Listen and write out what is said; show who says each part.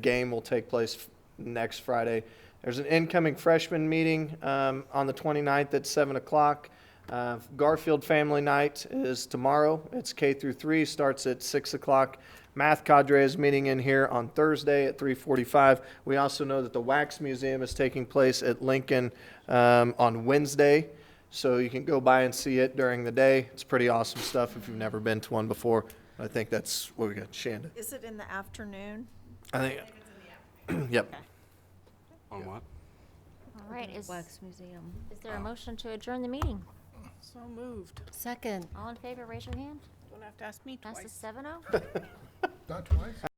Speaker 1: game will take place f- next Friday. There's an incoming freshman meeting um, on the 29th at 7 o'clock. Uh, Garfield Family Night is tomorrow. It's K through 3, starts at 6 o'clock. Math Cadre is meeting in here on Thursday at 3:45. We also know that the Wax Museum is taking place at Lincoln um, on Wednesday, so you can go by and see it during the day. It's pretty awesome stuff if you've never been to one before. I think that's what we got, Shanda.
Speaker 2: Is it in the afternoon?
Speaker 1: I think. Yep.
Speaker 3: On what?
Speaker 4: All right, is,
Speaker 5: Wax Museum.
Speaker 4: is there a motion to adjourn the meeting?
Speaker 6: So moved.
Speaker 5: Second.
Speaker 4: All in favor, raise your hand.
Speaker 6: Don't have to ask me twice.
Speaker 4: Passes seven oh.
Speaker 7: Not twice?